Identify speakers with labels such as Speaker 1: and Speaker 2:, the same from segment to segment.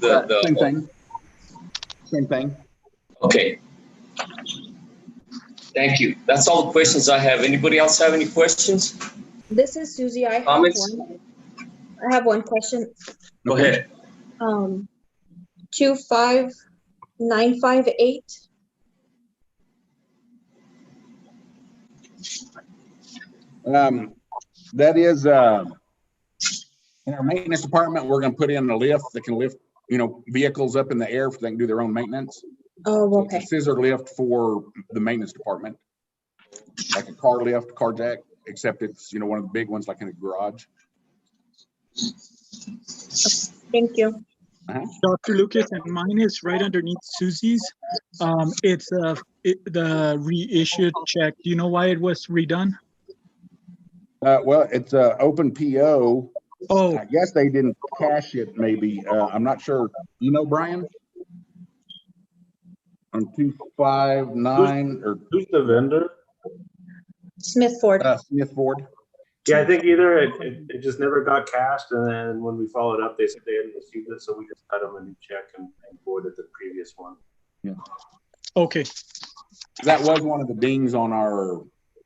Speaker 1: the,
Speaker 2: Uh, Same
Speaker 1: the,
Speaker 2: thing. Same thing.
Speaker 1: okay. Thank you. That's all the questions I have. Anybody else have any questions?
Speaker 3: This is Susie. I have
Speaker 1: Comments?
Speaker 3: one. I have one question.
Speaker 1: Go ahead.
Speaker 3: Um, two five nine five eight.
Speaker 2: Um, that is, uh, in our maintenance department, we're gonna put in a lift that can lift, you know, vehicles up in the air if they can do their own maintenance.
Speaker 3: Oh,
Speaker 2: It's a
Speaker 3: okay.
Speaker 2: Scissor lift for the maintenance department. Like a car lift, car jack, except it's, you know, one of the big ones like in a garage.
Speaker 3: Thank you.
Speaker 4: Dr. Lucas, and mine is right underneath Susie's. Um, it's, uh, it, the reissued check. Do you know why it was redone?
Speaker 2: Uh, well, it's a open PO.
Speaker 4: Oh,
Speaker 2: I guess they didn't cash it maybe. Uh, I'm not sure. You know, Brian? On two five nine or
Speaker 5: Who's the vendor?
Speaker 3: Smith Ford.
Speaker 2: uh, Smith Ford.
Speaker 5: Yeah, I think either it, it, it just never got cashed and then when we followed up, they said they hadn't received it, so we just cut them a new check and and voided the previous one.
Speaker 4: okay.
Speaker 2: That was one of the dings on our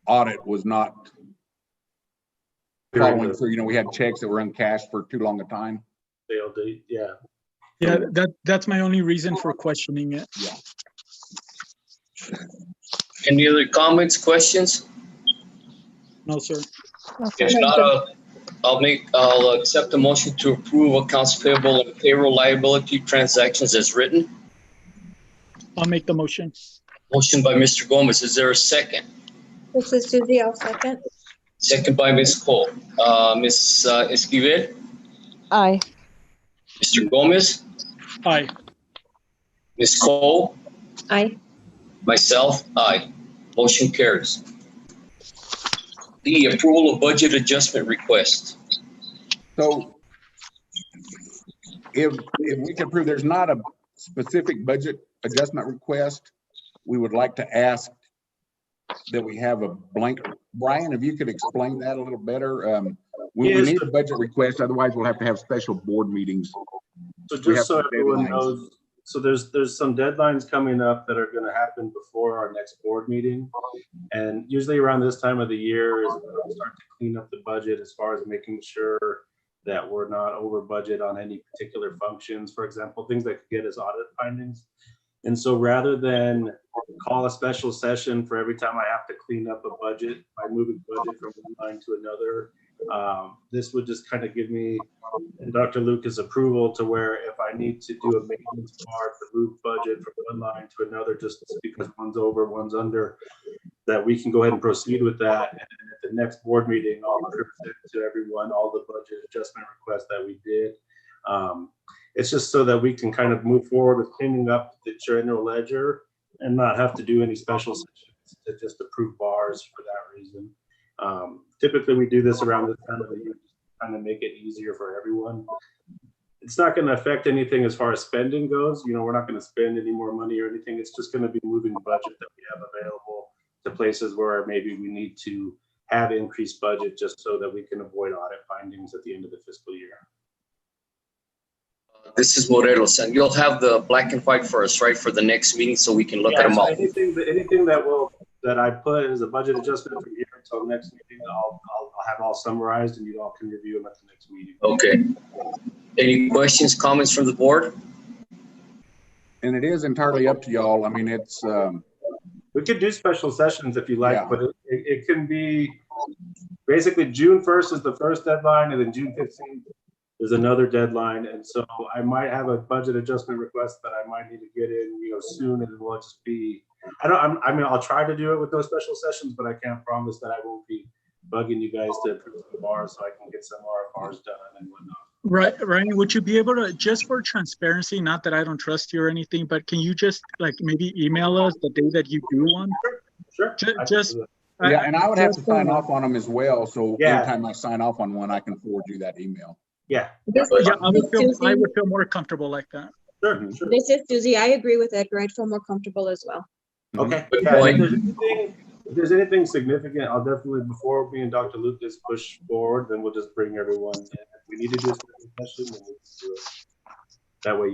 Speaker 2: audit was not following through. You know, we had checks that were uncashed for too long a time.
Speaker 5: They'll do, yeah.
Speaker 4: Yeah, that, that's my only reason for questioning it.
Speaker 1: Any other comments, questions?
Speaker 4: No, sir.
Speaker 1: If not, uh, I'll make, I'll accept the motion to approve accounts payable and payroll liability transactions as written.
Speaker 4: I'll make the motion.
Speaker 1: Motion by Mr. Gomez. Is there a second?
Speaker 3: This is Susie. I'll second.
Speaker 1: Second by Ms. Cole. Uh, Ms. uh, Esquivel,
Speaker 6: Aye.
Speaker 1: Mr. Gomez,
Speaker 4: Aye.
Speaker 1: Ms. Cole,
Speaker 3: Aye.
Speaker 1: myself, aye. Motion carries. D, approval of budget adjustment request.
Speaker 2: So if, if we can prove there's not a specific budget adjustment request, we would like to ask that we have a blank. Brian, if you could explain that a little better. Um, we we
Speaker 5: Yes.
Speaker 2: need a budget request, otherwise we'll have to have special board meetings. We
Speaker 5: So
Speaker 2: have
Speaker 5: just so
Speaker 2: some
Speaker 5: everyone
Speaker 2: deadlines.
Speaker 5: knows, so there's, there's some deadlines coming up that are gonna happen before our next board meeting. And usually around this time of the year is when we start to clean up the budget as far as making sure that we're not over budget on any particular functions, for example, things that could get us audit findings. And so rather than call a special session for every time I have to clean up a budget by moving budget from one line to another, um, this would just kind of give me and Dr. Lucas' approval to where if I need to do a maintenance bar to move budget from one line to another, just because one's over, one's under, that we can go ahead and proceed with that. And at the next board meeting, I'll present to everyone all the budget adjustment requests that we did. Um, It's just so that we can kind of move forward with cleaning up the general ledger and not have to do any special sessions to just approve bars for that reason. Um, Typically, we do this around the time of the year, kind of make it easier for everyone. It's not gonna affect anything as far as spending goes, you know, we're not gonna spend any more money or anything, it's just gonna be moving budget that we have available to places where maybe we need to have increased budget just so that we can avoid audit findings at the end of the fiscal year.
Speaker 1: Uh, This is Morelos, and you'll have the black and white for us, right, for the next meeting, so we can look at
Speaker 5: Yeah,
Speaker 1: them
Speaker 5: so
Speaker 1: all.
Speaker 5: Anything, that- anything that will, that I put as a budget adjustment from here until next meeting, I'll, I'll, I'll have all summarized and you all can review them at the next meeting.
Speaker 1: Okay. Any questions, comments from the board?
Speaker 2: And it is entirely up to y'all. I mean, it's, um,
Speaker 5: We could do special sessions if you
Speaker 2: Yeah.
Speaker 5: like, but it, it can be, basically, June first is the first deadline, and then June fifteenth is another deadline, and so I might have a budget adjustment request that I might need to get in, you know, soon, and it will just be, I don't, I'm, I mean, I'll try to do it with those special sessions, but I can't promise that I won't be bugging you guys to approve the bars, so I can get some RFRs done and whatnot.
Speaker 4: Right, Ryan, would you be able to, just for transparency, not that I don't trust you or anything, but can you just like maybe email us the day that you do one?
Speaker 5: Sure.
Speaker 4: Ju-
Speaker 5: I can
Speaker 4: just-
Speaker 5: do that.
Speaker 4: I-
Speaker 2: yeah, and I would have to
Speaker 4: Just, uh,
Speaker 2: sign off on them as well. So
Speaker 5: Yeah.
Speaker 2: anytime I sign off on one, I can forward you that email.
Speaker 5: Yeah,
Speaker 3: This
Speaker 1: Yeah,
Speaker 3: is
Speaker 4: Yeah, I would feel, I
Speaker 3: Susie.
Speaker 4: would feel more comfortable like that.
Speaker 5: sure, sure.
Speaker 3: This is Susie. I agree with Edgar. I'd feel more comfortable as well.
Speaker 5: Okay.
Speaker 1: Good
Speaker 5: Yeah,
Speaker 1: point.
Speaker 5: If there's anything- if there's anything significant, I'll definitely, before me and Dr. Lucas push forward, then we'll just bring everyone. in. If we need to do a special session, then we can do it. That way